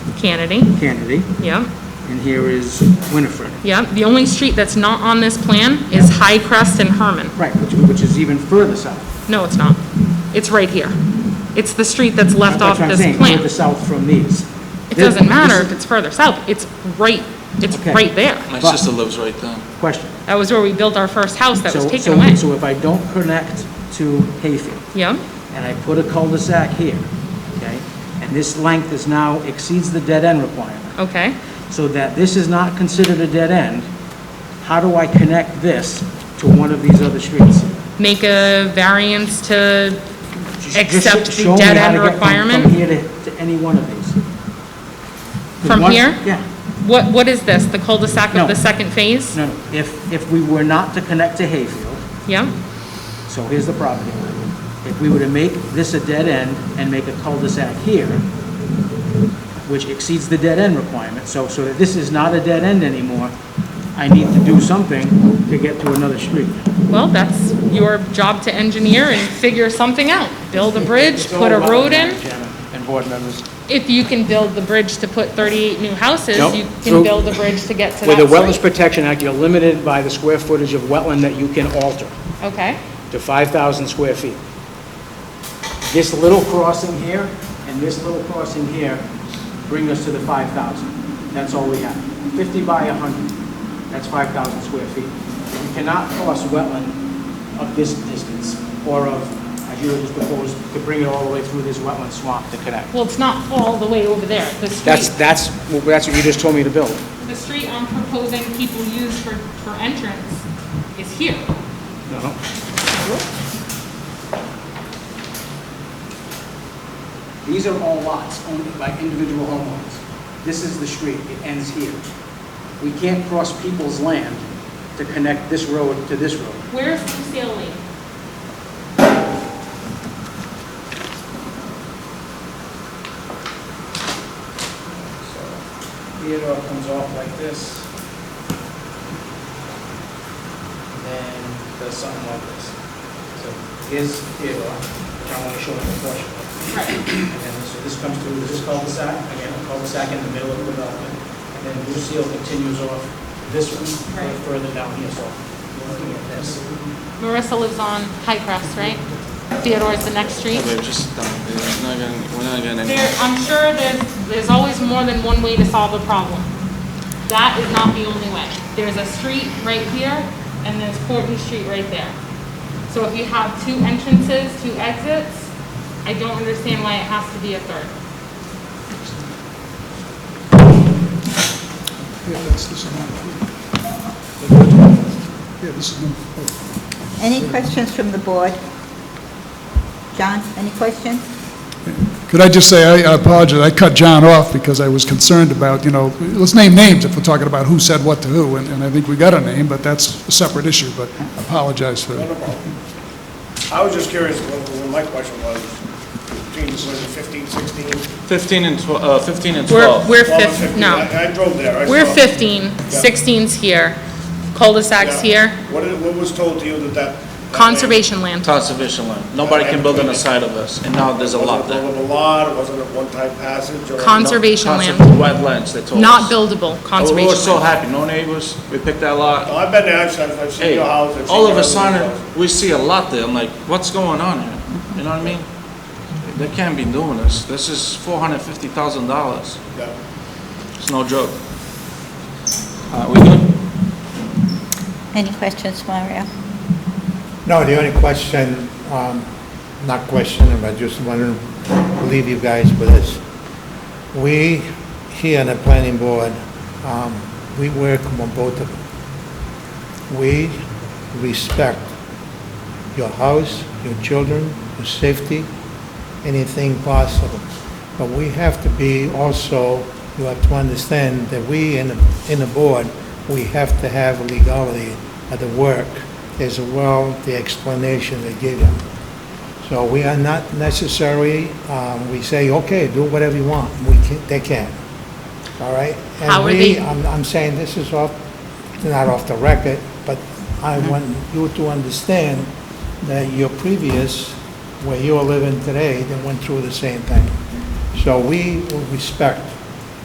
Kennedy, Kennedy, yep, and here is Winifred. yep. The only street that's not on this plan is High Crest and Herman. Right, which, which is even further south. No, it's not. It's right here. It's the street that's left off That's what I'm this saying, plan. Further south from these. It This- doesn't matter this if it's further south, it's right, it's Okay. right there. My But- sister lives right there. is a Question. That was where we built our first house that was So- taken so- away. So if I don't connect to Hayfield, Yep, and I put a cul-de-sac here, okay? And this length is now exceeds the dead-end requirement, okay. so that this is not considered a dead end, how do I connect this to one of these other streets? Make a variance to Just- just accept the show me how to dead-end get from- From requirement. here to, to any one of these. 'Cause From one- here? Yeah, What, what is this, the cul-de-sac No. of the second phase? no, no, if, if we were not to connect to Hayfield, Yep, So here's the property line. If we were to make this a dead end and make a cul-de-sac here, which exceeds the dead end requirement, so, so that this is not a dead end anymore, I need to do something to get to another street. well, that's your job to engineer and figure something out. Build a bridge, It's all put a about road that, in. Chairman And board members. If you can build the bridge to put 38 new houses, Nope. you can Through- build a bridge to get to With the that Wetlands street. Protection Act, you're limited by the square footage of wetland that you can alter Okay, to 5,000 square feet. This little crossing here and this little crossing here bring us to the 5,000. That's all we have. 50 by 100, that's 5,000 square feet. You cannot cross wetland of this distance or of, as you just proposed, to bring it all the way through this wetland swamp to connect. well, it's not all the way over there. The That's, street, that's, that's what you just told me to build. the street I'm proposing people use for, for entrance is here. No. These are all lots owned by individual homeowners. This is the street, it ends here. We can't cross people's land to connect this road to this road. Where's Lucille Lane? Theodore comes off like this. And then does something like this. So here's Theodore, which I want to show in proportion. Right, And then, so this comes through this cul-de-sac, again, a cul-de-sac in the middle of the development. And then Lucille continues off this one, Right. right further down here, so we're looking at this. Marissa lives on High Crest, right? Theodore's the next street. Yeah, babe, just stop it. It's not gonna- We're not getting anywhere. There, I'm sure there's, there's always more than one way to solve a problem. That is not the only way. There's a street right here, and there's Portland Street right there. So if you have two entrances, two exits, I don't understand why it has to be a third. Yeah, that's this one. Yeah, this is number four. Any questions from the board? John, any questions? Could I just say, I- I apologize, I cut John off because I was concerned about, you know, let's name names if we're talking about who said what to who, and and I think we got a name, but that's a separate issue, but I apologize for that. I was just curious, what what my question was, between, was it 15, 16? 15 and 12, uh, 15 and We're, 12. we're 12, fif, 15? no, I I drove there, I saw. we're 15, 16's here, cul-de-sacs Yeah. here, What is- what was told to you that that? that conservation land. Conservation land. Nobody can build on the side of us, and now there's a land- lot Was it there. a lot, wasn't it one-time passage? or- Conservation Conser- land, Wetlands, they told us. not buildable, And We were conservation so land. happy, no neighbors, we picked that lot. No, I've been there, I've seen- I've seen Hey, your house. I've seen all of your a other sudden, houses. we see a lot there, I'm like, what's going on here? You know what I mean? They can't be doing this. This is $450,000. Yeah. It's no joke. Uh, we good? Any questions, Mario? No, the only question, um, not question, but just want to leave you guys with this. We, here on the planning board, um, we work on both of them. We respect your house, your children, your safety, anything possible. But we have to be also, you have to understand that we in, the- in the board, we have to have legality of the work as well, the explanation they give you. So we are not necessarily, um, we say, okay, do whatever you want. We can, they can. All right? How are And they- we, I'm, I'm saying this is off, not off the record, but I Mm-hmm. want you to understand that your previous, where you are living today, they went through the same thing. So we will respect